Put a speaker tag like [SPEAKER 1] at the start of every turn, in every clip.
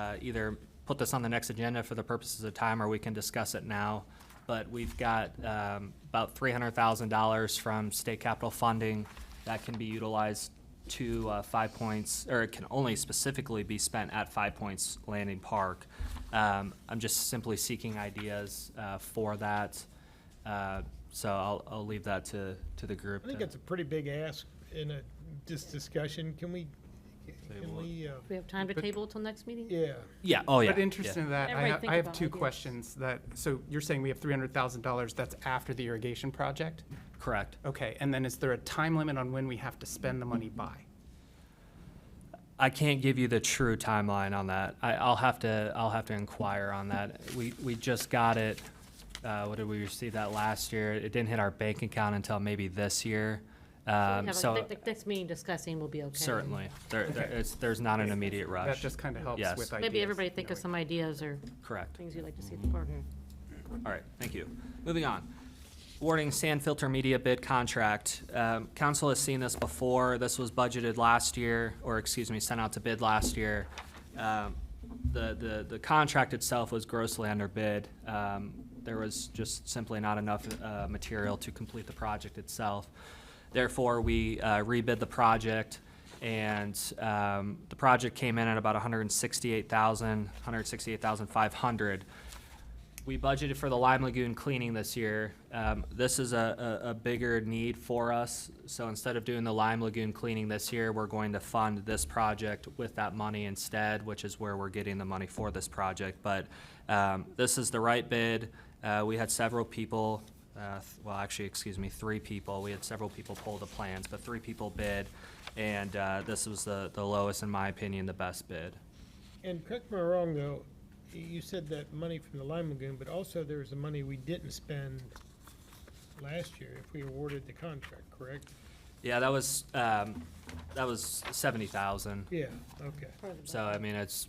[SPEAKER 1] uh, either put this on the next agenda for the purposes of time, or we can discuss it now. But we've got um, about $300,000 from state capital funding that can be utilized to uh, Five Points, or it can only specifically be spent at Five Points Landing Park. Um, I'm just simply seeking ideas uh, for that, Uh, so I'll, I'll leave that to, to the group.
[SPEAKER 2] I think
[SPEAKER 1] to-
[SPEAKER 2] that's a pretty big ask in a, this discussion. Can we, can
[SPEAKER 3] Table it.
[SPEAKER 2] we, uh,
[SPEAKER 4] Do we have time to table it till next meeting?
[SPEAKER 2] yeah,
[SPEAKER 1] Yeah, oh, yeah.
[SPEAKER 5] But interesting that,
[SPEAKER 4] Everybody
[SPEAKER 5] I have,
[SPEAKER 4] think
[SPEAKER 5] I have
[SPEAKER 4] about
[SPEAKER 5] two
[SPEAKER 4] ideas.
[SPEAKER 5] questions that, so you're saying we have three hundred thousand dollars that's after the irrigation project?
[SPEAKER 1] yeah, Correct.
[SPEAKER 5] Okay, and then is there a time limit on when we have to spend the money by?
[SPEAKER 1] I can't give you the true timeline on that. I, I'll have to, I'll have to inquire on that. We, we just got it, uh, what did we receive that last year? It didn't hit our bank account until maybe this year.
[SPEAKER 4] So we
[SPEAKER 1] Um,
[SPEAKER 4] have
[SPEAKER 1] so
[SPEAKER 4] a- the- the Next meeting discussing will be okay.
[SPEAKER 1] certainly, there, there, it's, there's not an immediate
[SPEAKER 5] That
[SPEAKER 1] rush.
[SPEAKER 5] just kind of helps
[SPEAKER 1] Yes.
[SPEAKER 5] with ideas.
[SPEAKER 4] Maybe everybody think of some ideas or
[SPEAKER 1] Correct.
[SPEAKER 4] things you'd like to see at the park.
[SPEAKER 1] All right, thank you. Moving on. Warning sand filter media bid contract. Um, council has seen this before. This was budgeted last year, or excuse me, sent out to bid last year. Um, the, the, the contract itself was grossly underbid. Um, there was just simply not enough, uh, material to complete the project itself. Therefore, we, uh, rebid the project and, um, the project came in at about 168,000, hundred and sixty-eight thousand, hundred and sixty-eight thousand five hundred. We budgeted for the Lime Lagoon cleaning this year. Um, this is a, a, a bigger need for us. So instead of doing the Lime Lagoon cleaning this year, we're going to fund this project with that money instead, which is where we're getting the money for this project. But, um, this is the right bid. Uh, we had several people, uh, th- well, actually, excuse me, three people. We had several people pull the plans, but three people bid. And, uh, this was the, the lowest, in my opinion, the best bid.
[SPEAKER 2] and correct me if I'm wrong, though, y- you said that money from the Lime Lagoon, but also there was the money we didn't spend last year if we awarded the contract, correct?
[SPEAKER 1] Yeah, that was, um, that was seventy thousand.
[SPEAKER 2] Yeah, okay.
[SPEAKER 1] So, I mean, it's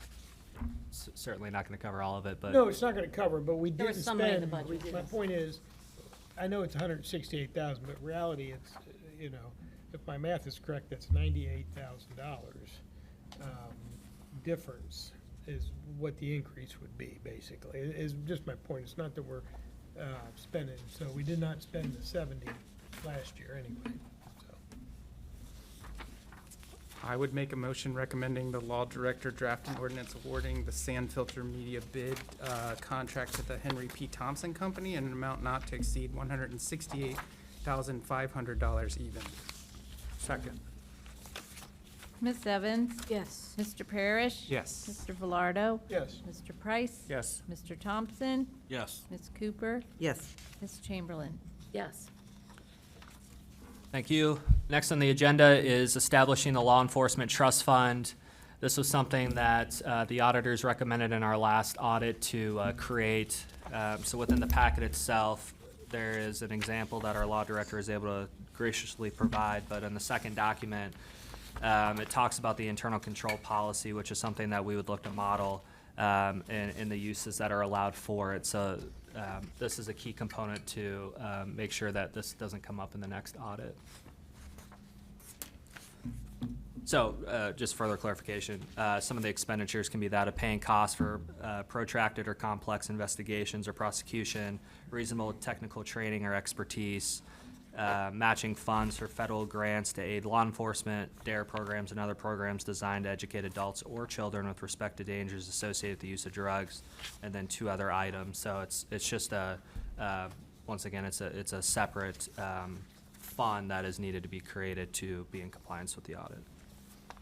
[SPEAKER 1] s- certainly not gonna cover all of it,
[SPEAKER 2] No,
[SPEAKER 1] but,
[SPEAKER 2] it's not gonna cover, but we
[SPEAKER 4] There
[SPEAKER 2] didn't
[SPEAKER 4] was some
[SPEAKER 2] spend.
[SPEAKER 4] money in the budget,
[SPEAKER 2] My
[SPEAKER 4] yes.
[SPEAKER 2] point is, I know it's hundred and sixty-eight thousand, but reality, it's, uh, you know, if my math is correct, that's ninety-eight thousand dollars. um, Difference is what the increase would be, basically, i- is just my point. It's not that we're, uh, spending, so we did not spend the seventy last year anyway, so.
[SPEAKER 5] I would make a motion recommending the law director draft an ordinance awarding the sand filter media bid uh, contract to the Henry P. Thompson Company in an amount not to exceed one hundred and sixty-eight thousand five hundred dollars even. Second.
[SPEAKER 6] Ms. Evans?
[SPEAKER 4] Yes.
[SPEAKER 6] Mr. Parrish?
[SPEAKER 5] Yes.
[SPEAKER 6] Mr. Velardo?
[SPEAKER 2] Yes,
[SPEAKER 6] Mr. Price?
[SPEAKER 3] Yes.
[SPEAKER 6] Mr. Thompson?
[SPEAKER 3] Yes.
[SPEAKER 6] Ms. Cooper?
[SPEAKER 7] Yes,
[SPEAKER 6] Ms. Chamberlain?
[SPEAKER 4] Yes.
[SPEAKER 1] thank you. Next on the agenda is establishing the Law Enforcement Trust Fund. This was something that, uh, the auditors recommended in our last audit to, uh, create. Um, so within the packet itself, there is an example that our law director is able to graciously provide, but in the second document, Um, it talks about the internal control policy, which is something that we would look to model, um, and, and the uses that are allowed for it. So, um, this is a key component to, um, make sure that this doesn't come up in the next audit. So, uh, just further clarification, uh, some of the expenditures can be that of paying costs for uh, protracted or complex investigations or prosecution, reasonable technical training or expertise, uh, matching funds for federal grants to aid law enforcement, DARE E programs and other programs designed to educate adults or children with respect to dangers associated with the use of drugs, and then two other items. So it's, it's just a, uh, once again, it's a, it's a separate um, fund that is needed to be created to be in compliance with the audit.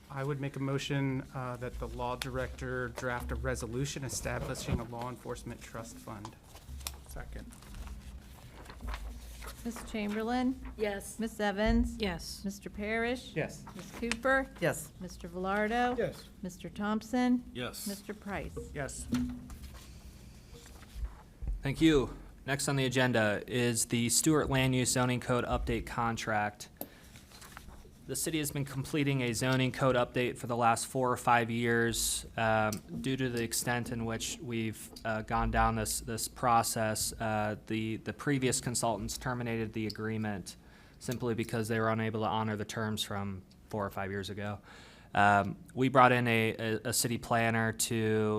[SPEAKER 5] I would make a motion uh, that the law director draft a resolution establishing a law enforcement trust fund. Second.
[SPEAKER 6] Ms. Chamberlain?
[SPEAKER 4] Yes.
[SPEAKER 6] Ms. Evans?
[SPEAKER 4] Yes.
[SPEAKER 6] Mr. Parrish?
[SPEAKER 5] Yes.
[SPEAKER 6] Ms. Cooper?
[SPEAKER 7] yes,
[SPEAKER 6] Mr. Velardo?
[SPEAKER 2] yes,
[SPEAKER 6] Mr. Thompson?
[SPEAKER 3] Yes.
[SPEAKER 6] Mr. Price?
[SPEAKER 5] Yes.
[SPEAKER 1] Thank you. Next on the agenda is the Stewart Land Use Zoning Code Update Contract. The city has been completing a zoning code update for the last four or five years. Um, Due to the extent in which we've uh, gone down this, this process, uh, the, the previous consultants terminated the agreement simply because they were unable to honor the terms from four or five years ago. Um, We brought in a, a- a city planner to